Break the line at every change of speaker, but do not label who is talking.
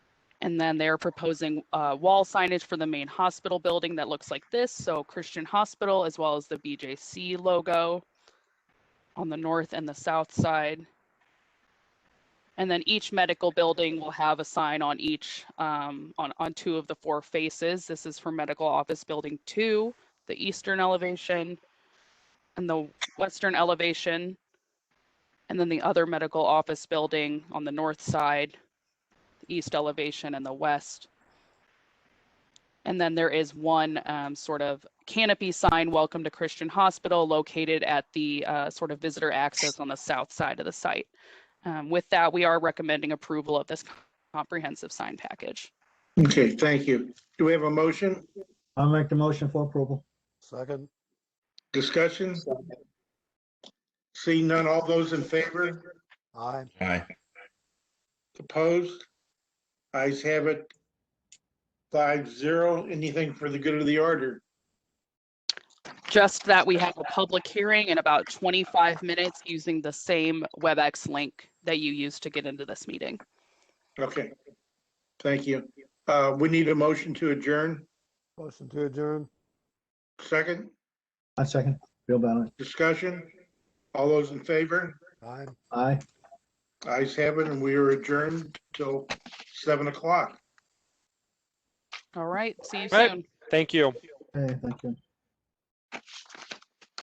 And then they're proposing uh, wall signage for the main hospital building that looks like this. So Christian Hospital, as well as the BJC logo on the north and the south side. And then each medical building will have a sign on each, um, on, on two of the four faces. This is for Medical Office Building 2, the eastern elevation, and the western elevation. And then the other medical office building on the north side, the east elevation and the west. And then there is one um, sort of canopy sign, Welcome to Christian Hospital, located at the uh, sort of visitor access on the south side of the site. Um, With that, we are recommending approval of this comprehensive sign package.
Okay, thank you. Do we have a motion,
I'll make the motion for approval.
Second,
discussion? See none, all those in favor,
aye.
Aye.
opposed? Eyes have it. Five zero, anything for the good of the order?
Just that we have a public hearing in about 25 minutes using the same WebEx link that you used to get into this meeting.
Okay, thank you. Uh, we need a motion to adjourn.
Motion to adjourn,
Second,
I second. Bill Ballard.
discussion? All those in favor?
aye.
Aye.
Eyes have it, and we are adjourned till seven o'clock.
All right, see you
Right.
soon.
Thank you.
Hey, thank you.